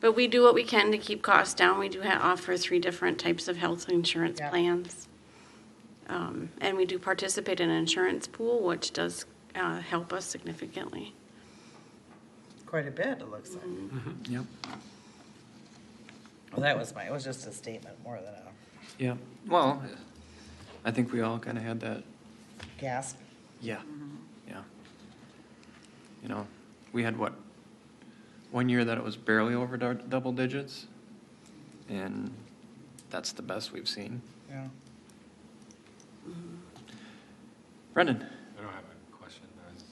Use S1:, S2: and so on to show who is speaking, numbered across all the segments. S1: But we do what we can to keep costs down. We do ha- offer three different types of health insurance
S2: Yeah.
S1: plans. Um, And we do participate in an insurance pool, which does uh, help us significantly.
S2: Quite a bit, it looks like.
S3: Yep,
S2: Well, that was my, it was just a statement more than a
S3: yep. Well, I think we all kind of had that,
S2: gasp.
S3: yeah, yeah. You know, we had what, one year that it was barely over dou- double digits? And that's the best we've seen.
S2: Yeah.
S3: Brendan,
S4: I don't have a question. I was-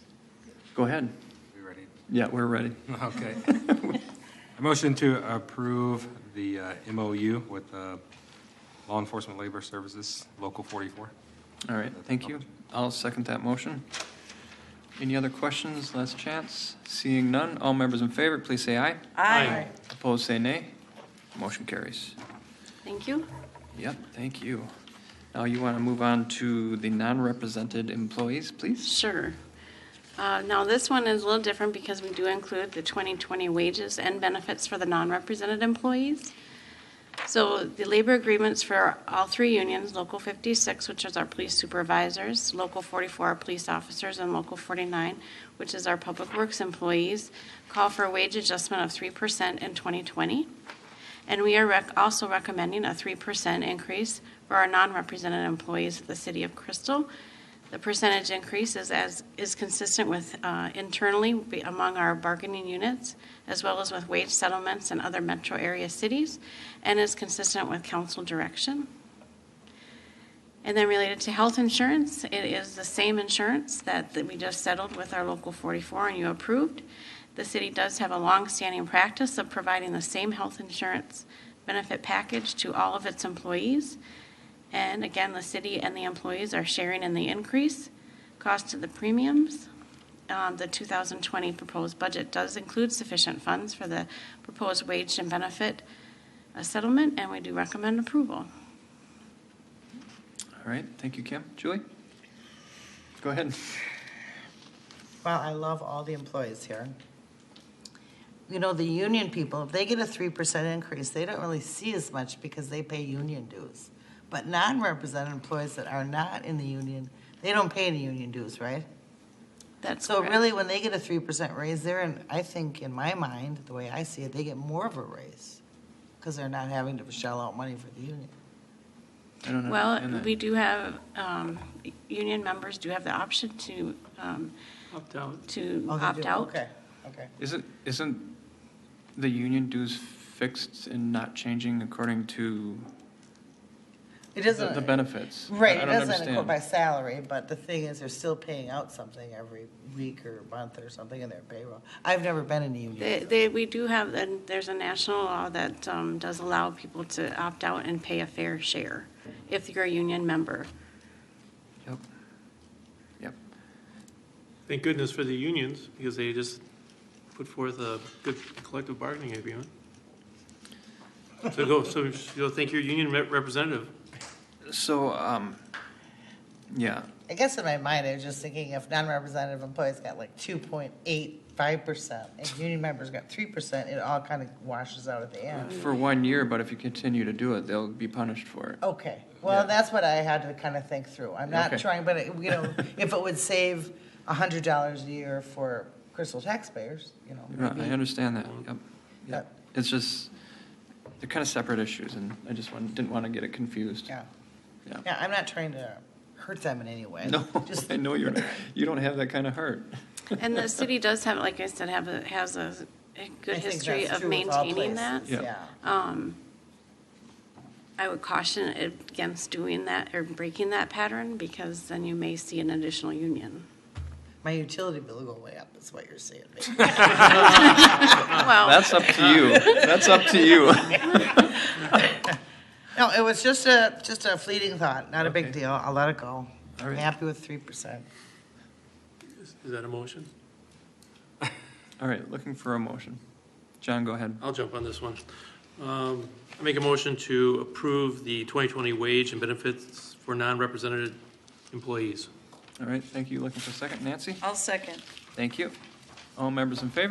S3: go ahead.
S4: We ready?
S3: Yeah, we're ready.
S4: Okay. I motion to approve the uh, MOU with uh, Law Enforcement Labor Services, Local 44.
S3: All right, thank you. I'll second that motion. Any other questions? Last chance. Seeing none, all members in favor, please say aye.
S2: Aye.
S3: Opposed, say nay. Motion carries.
S1: Thank you.
S3: Yep, thank you. Now you want to move on to the non-represented employees, please?
S1: Sure. Uh, Now, this one is a little different because we do include the 2020 wages and benefits for the non-represented employees. So the labor agreements for all three unions, Local 56, which is our police supervisors, Local 44, our police officers, and Local 49, which is our public works employees, call for a wage adjustment of 3% in 2020. And we are rec- also recommending a 3% increase for our non-represented employees at the City of Crystal. The percentage increase is as, is consistent with uh, internally be- among our bargaining units, as well as with wage settlements in other metro area cities, and is consistent with council direction. And then related to health insurance, it is the same insurance that, that we just settled with our Local 44 and you approved. The city does have a longstanding practice of providing the same health insurance benefit package to all of its employees. And again, the city and the employees are sharing in the increase, cost of the premiums. Um, The 2020 proposed budget does include sufficient funds for the proposed wage and benefit uh, settlement, and we do recommend approval.
S3: All right, thank you, Kim. Julie? Go ahead.
S2: Well, I love all the employees here. You know, the union people, if they get a three percent increase, they don't really see as much because they pay union dues. But non-represented employees that are not in the union, they don't pay any union dues, right?
S1: That's
S2: So
S1: correct.
S2: really, when they get a three percent raise, they're, in I think, in my mind, the way I see it, they get more of a raise because they're not having to shell out money for the union.
S3: I
S5: Mm-hmm.
S3: don't understand
S1: Well,
S3: that.
S1: we do have, um, union members do have the option to, um,
S5: Opt out.
S1: to
S2: Oh, they
S1: opt
S2: do?
S1: out.
S2: Okay, okay.
S3: Isn't, isn't the union dues fixed and not changing according to
S2: It
S3: the
S2: doesn't.
S3: the benefits? I-
S2: Right,
S3: I
S2: it
S3: don't
S2: doesn't go
S3: understand.
S2: by salary, but the thing is, they're still paying out something every week or month or something in their payroll. I've never been in a
S1: They,
S2: union.
S1: they, we do have, and there's a national law that, um, does allow people to opt out and pay a fair share if you're a union member.
S3: Yep. Yep.
S5: Thank goodness for the unions, because they just put forth a good collective bargaining agreement. So go, so you know, thank your union rep- representative.
S3: So, um, yeah,
S2: I guess in my mind, I was just thinking if non-representative employees got like two point eight five percent, and union members got three percent, it all kind of washes out at the end.
S3: for one year, but if you continue to do it, they'll be punished for it.
S2: Okay, well,
S3: Yeah.
S2: that's what I had to kind of think through. I'm not
S3: Okay.
S2: trying, but, it- you know, if it would save a hundred dollars a year for Crystal taxpayers, you know.
S3: Right, Uh, I
S2: maybe-
S3: understand that, yep, yep.
S2: Yep.
S3: It's just, they're kind of separate issues, and I just want, didn't want to get it confused.
S2: Yeah.
S3: Yeah.
S2: Yeah, I'm not trying to hurt them in any way.
S3: No,
S2: Just,
S3: I know you're, not- you don't have that kind of heart.
S1: And the city does have, like I said, have a, has a a
S2: I
S1: good
S2: think
S1: history
S2: that's
S1: of
S2: true with all
S1: maintaining that. Um,
S2: places,
S3: Yeah.
S2: Yeah.
S1: I would caution against doing that or breaking that pattern, because then you may see an additional union.
S2: My utility bill will go way up, is what you're saying.
S1: Well,
S3: That's up to you, that's up to you.
S2: No, it was just a, just a fleeting thought, not a big
S3: Okay.
S2: deal. I'll let it go.
S3: All
S2: I'm
S3: right.
S2: happy with three percent.
S5: Is is that a motion?
S3: All right, looking for a motion. John, go ahead.
S5: I'll jump on this one. Um, I make a motion to approve the 2020 wage and benefits for non-represented employees.
S3: All right, thank you, looking for a second. Nancy?
S6: I'll second.
S3: Thank you. All members in favor?